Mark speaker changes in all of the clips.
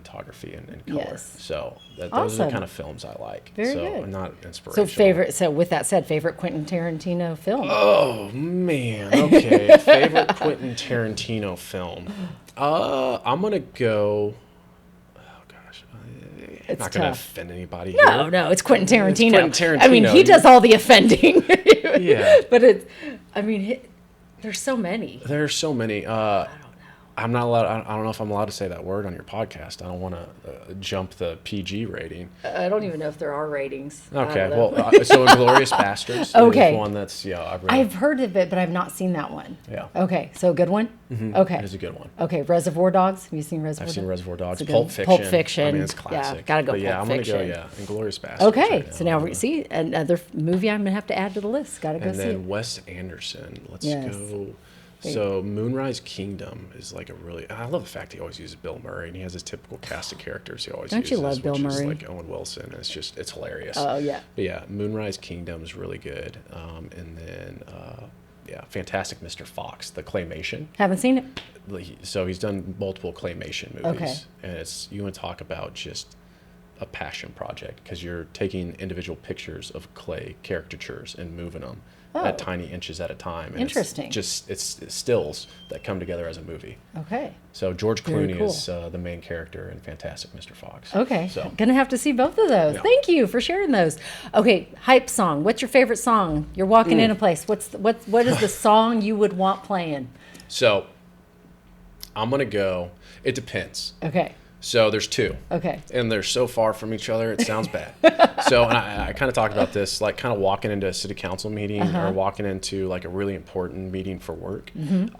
Speaker 1: cinematography and, and color.
Speaker 2: Yes.
Speaker 1: So that, those are the
Speaker 2: Awesome.
Speaker 1: kind of films I like.
Speaker 2: Very
Speaker 1: so
Speaker 2: good.
Speaker 1: I'm not
Speaker 2: So
Speaker 1: inspirational.
Speaker 2: favorite. So with that said, favorite Quentin Tarantino film.
Speaker 1: Oh man. Okay. favorite Quentin Tarantino film. Uh, I'm gonna go. Oh gosh, I'm
Speaker 2: It's
Speaker 1: not gonna
Speaker 2: tough.
Speaker 1: offend anybody
Speaker 2: no,
Speaker 1: here.
Speaker 2: no, it's Quentin Tarantino.
Speaker 1: Quentin
Speaker 2: I mean,
Speaker 1: Tarantino.
Speaker 2: he does all the offending.
Speaker 1: Yeah.
Speaker 2: but it. I mean, he, there's so many.
Speaker 1: There are so many. Uh, I'm not allowed. I I don't know if I'm allowed to say that word on your podcast. I don't want to uh, jump the PG rating.
Speaker 2: I don't even know if there are ratings. I
Speaker 1: Okay.
Speaker 2: don't know.
Speaker 1: Well, uh, so Inglorious Bastards.
Speaker 2: Okay.
Speaker 1: One that's yeah. I really,
Speaker 2: I've heard of it, but I've not seen that one.
Speaker 1: Yeah.
Speaker 2: Okay, so a good one. Okay.
Speaker 1: It's a good one.
Speaker 2: Okay, Reservoir Dogs. Have you seen Reservoir?
Speaker 1: I've seen
Speaker 2: Dogs?
Speaker 1: Reservoir Dogs,
Speaker 2: It's a good
Speaker 1: Pulp
Speaker 2: one.
Speaker 1: Fiction.
Speaker 2: Pulp
Speaker 1: I
Speaker 2: Fiction.
Speaker 1: mean, it's
Speaker 2: Yeah,
Speaker 1: classic.
Speaker 2: gotta go
Speaker 1: But yeah,
Speaker 2: Pulp
Speaker 1: I'm gonna
Speaker 2: Fiction.
Speaker 1: go. Yeah, Inglorious Bastards.
Speaker 2: Okay,
Speaker 1: right
Speaker 2: so now we
Speaker 1: Uh,
Speaker 2: see another f- movie I'm gonna have to add to the list. Gotta go
Speaker 1: And
Speaker 2: see
Speaker 1: then
Speaker 2: it.
Speaker 1: Wes Anderson. Let's
Speaker 2: Yes.
Speaker 1: go. So Moonrise Kingdom is like a really. I love the fact he always uses Bill Murray, and he has his typical cast of characters he always
Speaker 2: Don't
Speaker 1: uses.
Speaker 2: you love Bill
Speaker 1: which is
Speaker 2: Murray?
Speaker 1: like Owen Wilson. It's just it's hilarious.
Speaker 2: Oh yeah.
Speaker 1: But yeah, Moonrise Kingdom is really good. Um, and then uh, yeah, Fantastic Mr. Fox, the claymation.
Speaker 2: Haven't seen it.
Speaker 1: Like, he- So he's done multiple claymation movies,
Speaker 2: Okay.
Speaker 1: and it's you want to talk about just a passion project because you're taking individual pictures of clay caricatures and moving them at tiny inches at a time. And it's
Speaker 2: Oh. Interesting.
Speaker 1: just it's, stills that come together as a movie.
Speaker 2: Okay.
Speaker 1: So George
Speaker 2: Very
Speaker 1: Clooney
Speaker 2: cool.
Speaker 1: is uh, the main character in Fantastic Mr. Fox.
Speaker 2: Okay.
Speaker 1: So
Speaker 2: Gonna have to see both of those.
Speaker 1: Yeah.
Speaker 2: Thank you for sharing those. Okay, hype song. What's your favorite song? You're
Speaker 1: Mm.
Speaker 2: walking in a place. What's the, what what is the song you would want playing?
Speaker 1: so I'm gonna go. It depends.
Speaker 2: Okay.
Speaker 1: So there's two.
Speaker 2: Okay.
Speaker 1: and they're so far from each other it sounds bad so and i, I kind of talked about this like kind of walking into a city council meeting or walking into like a really important meeting for work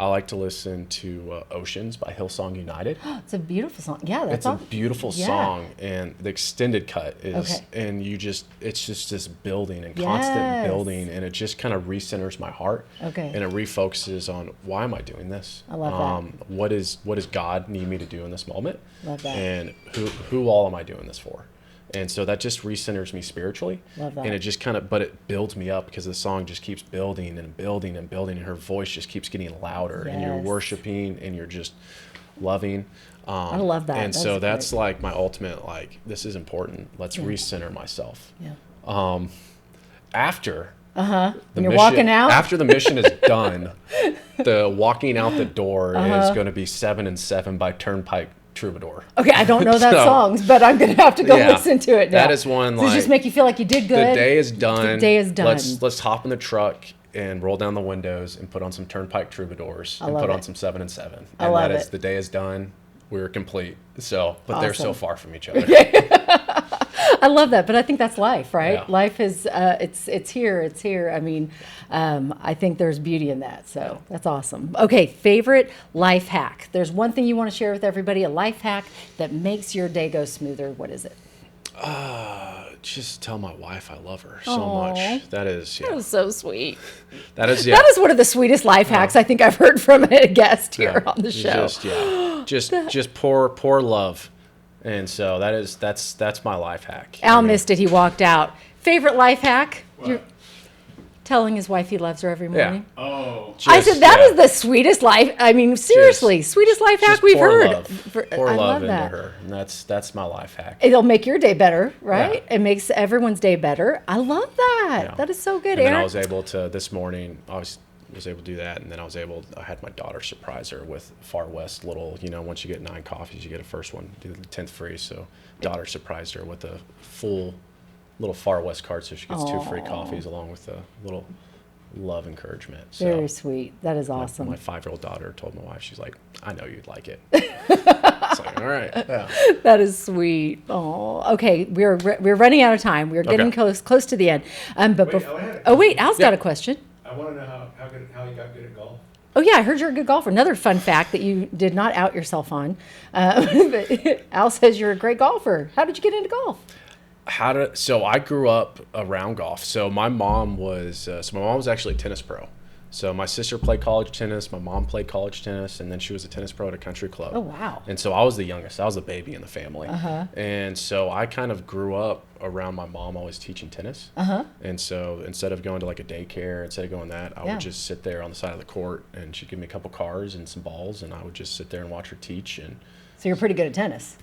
Speaker 1: i like to listen to uh, oceans by hillsong united
Speaker 2: It's a beautiful song. Yeah, that's
Speaker 1: it's a
Speaker 2: all.
Speaker 1: beautiful
Speaker 2: Yeah.
Speaker 1: song and the extended cut is
Speaker 2: Okay.
Speaker 1: and you just it's just this building and constant
Speaker 2: Yes.
Speaker 1: building and it just kind of recenters my heart
Speaker 2: Okay.
Speaker 1: and it refocuses on why am i doing this
Speaker 2: I love that.
Speaker 1: that. what is what does god need me to do in this moment
Speaker 2: Love that.
Speaker 1: and who who all am i doing this for and so that just recenters me spiritually
Speaker 2: Love that.
Speaker 1: and it just kind of but it builds me up because the song just keeps building and building and building and her voice just keeps getting louder and you're
Speaker 2: Yes.
Speaker 1: worshiping and you're just loving um,
Speaker 2: I love that.
Speaker 1: and
Speaker 2: That's
Speaker 1: so
Speaker 2: great.
Speaker 1: that's like my ultimate like this is important. Let's recenter myself.
Speaker 2: Yeah.
Speaker 1: After the
Speaker 2: Uh-huh. When you're walking out?
Speaker 1: After the mission is done, the walking out the door
Speaker 2: Uh-huh.
Speaker 1: is going to be seven and seven by Turnpike Troubadour.
Speaker 2: Okay, I don't know that
Speaker 1: So-
Speaker 2: songs, but I'm gonna have to go
Speaker 1: Yeah.
Speaker 2: listen to it now.
Speaker 1: That is one,
Speaker 2: Does it just
Speaker 1: like,
Speaker 2: make you feel like you did good?
Speaker 1: The day is done.
Speaker 2: day is done.
Speaker 1: Let's let's hop in the truck and roll down the windows and put on some Turnpike Troubadours and
Speaker 2: love
Speaker 1: put on
Speaker 2: it.
Speaker 1: some seven and seven.
Speaker 2: I
Speaker 1: And that
Speaker 2: love
Speaker 1: is
Speaker 2: it.
Speaker 1: the day is done. We're complete. So, but they're so
Speaker 2: Awesome.
Speaker 1: far from each other.
Speaker 2: I love that, but I think that's life, right?
Speaker 1: Yeah.
Speaker 2: Life is uh, it's it's here, it's here. I mean, um, I think there's beauty in that, so that's awesome. Okay, favorite life hack. There's one thing you want to share with everybody, a life hack that makes your day go smoother. What is it?
Speaker 1: Uh, Just tell my wife I love her so much. That is yeah.
Speaker 2: So sweet.
Speaker 1: That is yeah.
Speaker 2: That is one of the sweetest life hacks I think I've heard from a guest here
Speaker 1: Yeah,
Speaker 2: on the
Speaker 1: it's
Speaker 2: show.
Speaker 1: Just yeah, just just poor poor love, and so that is that's that's my life hack.
Speaker 2: Al
Speaker 1: I mean,
Speaker 2: missed it. He walked out. Favorite life hack? You're telling his wife he loves her every morning.
Speaker 3: Oh,
Speaker 2: I
Speaker 1: just,
Speaker 2: said that
Speaker 1: yeah,
Speaker 2: is the sweetest life. I mean, seriously, sweetest life hack
Speaker 1: just
Speaker 2: we've
Speaker 1: pour
Speaker 2: heard.
Speaker 1: Love.
Speaker 2: For-
Speaker 1: pour
Speaker 2: I
Speaker 1: love
Speaker 2: love
Speaker 1: into
Speaker 2: that.
Speaker 1: her, and that's that's my life hack.
Speaker 2: It'll make your day better, right?
Speaker 1: Yeah.
Speaker 2: It makes everyone's day better. I love that.
Speaker 1: Yeah.
Speaker 2: That is so
Speaker 1: And
Speaker 2: good,
Speaker 1: then
Speaker 2: Aaron.
Speaker 1: I was able to this morning. I was was able to do that, and then I was able. I had my daughter surprise her with Far West little. You know, once you get nine coffees, you get a first one, do the tenth free. So, daughter surprised her with a full little Far West card, so she gets two free coffees along with a little love encouragement. So.
Speaker 2: Very sweet. That is awesome.
Speaker 1: My five-year-old daughter told my wife, she's like, "I know you'd like it." it's like, all right, yeah.
Speaker 2: That is sweet. Oh, okay. We're we're running out of time. We're getting
Speaker 1: Okay.
Speaker 2: close close to the end. Um, but
Speaker 3: Wait,
Speaker 2: bef-
Speaker 3: I had a
Speaker 2: oh wait, Al's got
Speaker 1: Yeah.
Speaker 2: a question.
Speaker 3: I want to know how how, good, how he got good at golf.
Speaker 2: Oh yeah, I heard you're a good golfer. Another fun fact that you did not out yourself on. Uh, but Al says you're a great golfer. How did you get into golf?
Speaker 1: how to so i grew up around golf so my mom was uh, so my mom was actually a tennis pro so my sister played college tennis my mom played college tennis and then she was a tennis pro at a country club
Speaker 2: Oh, wow. Uh-huh.
Speaker 1: and so i was the youngest i was the baby in the family and so i kind of grew up around my mom always teaching tennis
Speaker 2: Uh-huh.
Speaker 1: and so instead of going to like a daycare instead of going that i
Speaker 2: Yeah.
Speaker 1: would just sit there on the side of the court and she'd give me a couple cars and some balls and i would just sit there and watch her teach and
Speaker 2: So you're pretty good at tennis.